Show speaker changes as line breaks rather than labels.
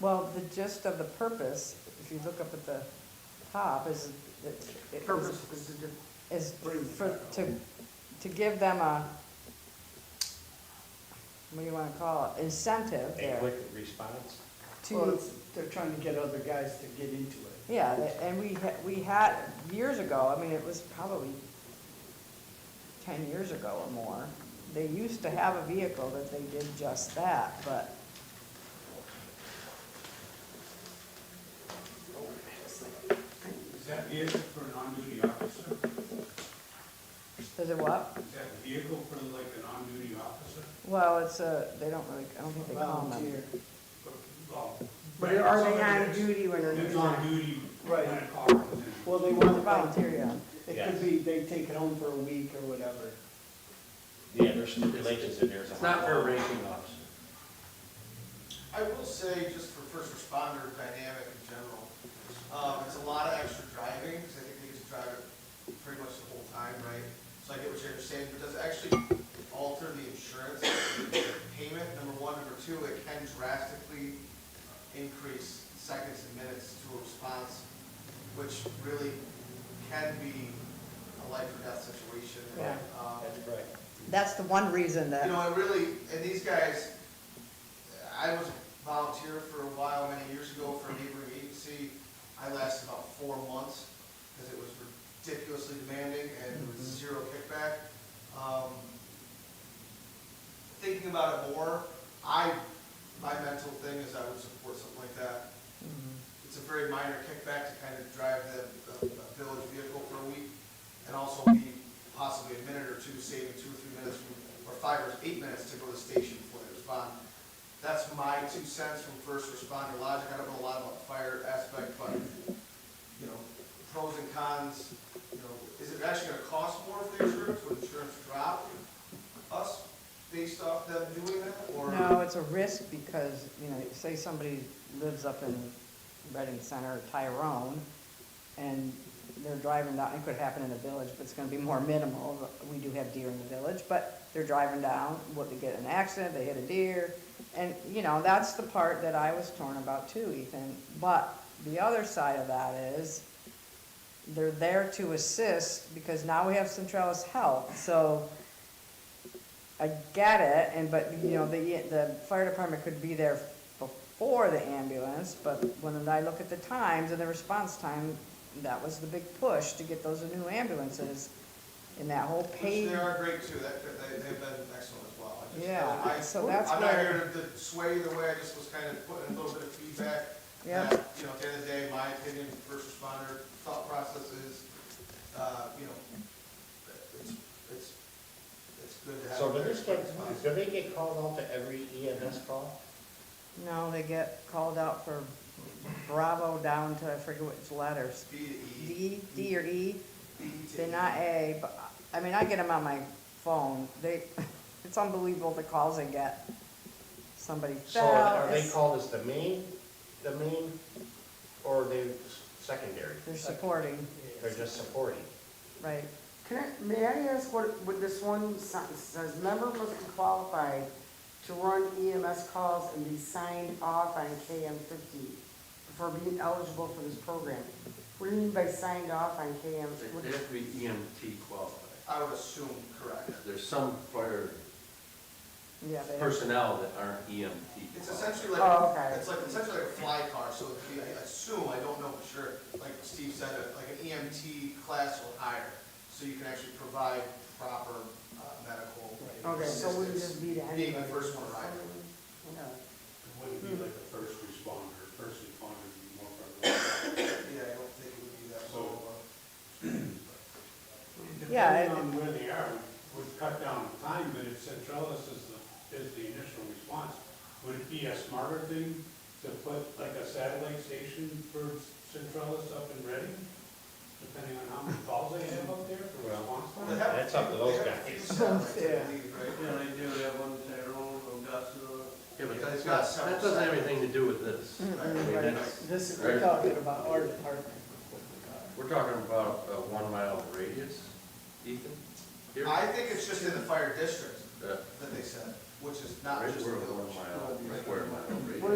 Well, the gist of the purpose, if you look up at the top, is, it- it-
Purpose is to do-
is
Bring it
for,
back up.
to, to give them a, what do you wanna call it, incentive
A
there
quick response?
well,
to,
it's, they're trying to get other guys to get into it.
yeah, tha- and we, ha- we had, years ago, I mean, it was probably ten years ago or more, they used to have a vehicle that they did just that, but
Is that vehicle for an on-duty officer?
is it what?
Is that vehicle for like an on-duty officer?
Well, it's a, they don't really, I don't think they call them.
Volunteer.
Well,
But are they
somebody
on
that's-
duty when they're
That's
not?
on duty
Right.
when a car comes in.
Well, they want to volunteer.
Volunteer, yeah.
It
Yes.
could be, they take it home for a week or whatever.
Yeah, there's some relations in there. It's not for ranking officer.
I will say, just for first responder dynamic in general, um, it's a lot of extra driving, because I think they just drive it pretty much the whole time, right? So I get what you're saying, but does it actually alter the insurance payment, number one, number two, it can drastically increase seconds and minutes to a response, which really can be a life or death situation.
Yeah.
Um,
That's right.
That's the one reason
you
that,
know, it really, and these guys, I was a volunteer for a while, many years ago for a neighboring agency. I lasted about four months because it was ridiculously demanding and there was zero kickback. Um, Thinking about it more, I, my mental thing is I would support something like that. It's a very minor kickback to kind of drive the, the the village vehicle for a week and also be possibly a minute or two, saving two or three minutes, from- or five or eight minutes to go to the station before they respond. That's my two cents from first responder logic. I don't know a lot about the fire aspect, but, you know, pros and cons, you know, is it actually gonna cost more if they insurance, would insurance drop us based off them doing that, or?
no, it's a risk because, you know, say somebody lives up in Reading Center, Tyrone, and they're driving down, it could happen in the village, but it's gonna be more minimal. We do have deer in the village, but they're driving down, what, they get in an accident, they hit a deer. And, you know, that's the part that I was torn about too, Ethan. But the other side of that is, they're there to assist because now we have Centralis Health, so I get it, and, but, you know, the, the fire department could be there before the ambulance, but when I look at the times and the response time, that was the big push to get those new ambulances in that whole
Which
page.
they are great too, that, they, they've been excellent as well. I just-
Yeah,
I-
so that's
I'm not
where-
here to- to sway either way, I just was kind of putting a little bit of feedback.
Yeah.
that, You know, at the end of the day, my opinion, first responder thought process is, uh, you know, it's, it's, it's good to have.
So
a
do this
quick
get,
response.
do they get called out to every EMS call?
No, they get called out for Bravo down to, I forget which letters,
B to E,
D, D or E?
B to
They're
E.
not A, but, I mean, I get them on my phone, they, it's unbelievable the calls I get. Somebody
So
fell.
are they
it's-
called as the main, the main, or are they secondary?
They're supporting,
They're just supporting?
right,
Can I, may I ask what, what this one sentence says, member must be qualified to run EMS calls and be signed off on KM fifty before being eligible for this program. What do you mean by signed off on KM?
They have to be EMT qualified.
I would assume correct.
There's some fire
yeah, they are.
personnel that aren't EMT.
It's
qualified.
essentially
Oh,
like,
okay.
it's like, essentially like a fly car, so it'd be, I assume, I don't know for sure, like Steve said, uh, like an EMT class or higher, so you can actually provide proper uh, medical.
Okay, so we
assistance.
just be to anybody.
Being the first one arrived.
Okay.
It wouldn't be like a first responder, first responder would be more for.
Yeah, I don't think it would be that low.
Yeah, it-
Depending on where they are, would cut down the time, but if Centralis is the, is the initial response, would it be a smarter thing to put like a satellite station for Centralis up and ready? Depending on how many calls they have up there for response
Well,
time?
they have-
That's up to those
they have
guys.
two satellites, I
Yeah.
believe, right?
Yeah, they do have one in Tyrone, Augusta. Yeah, but
They've
that's
got
not,
several
that doesn't have
sites.
anything to do with this. I mean, that's-
This is,
Mm.
we're talking about our department.
We're talking about a one mile radius, Ethan? Here?
I think it's just in the fire district
Uh,
that they said, which is not
Right,
just the
we're a
village.
one mile, square mile radius.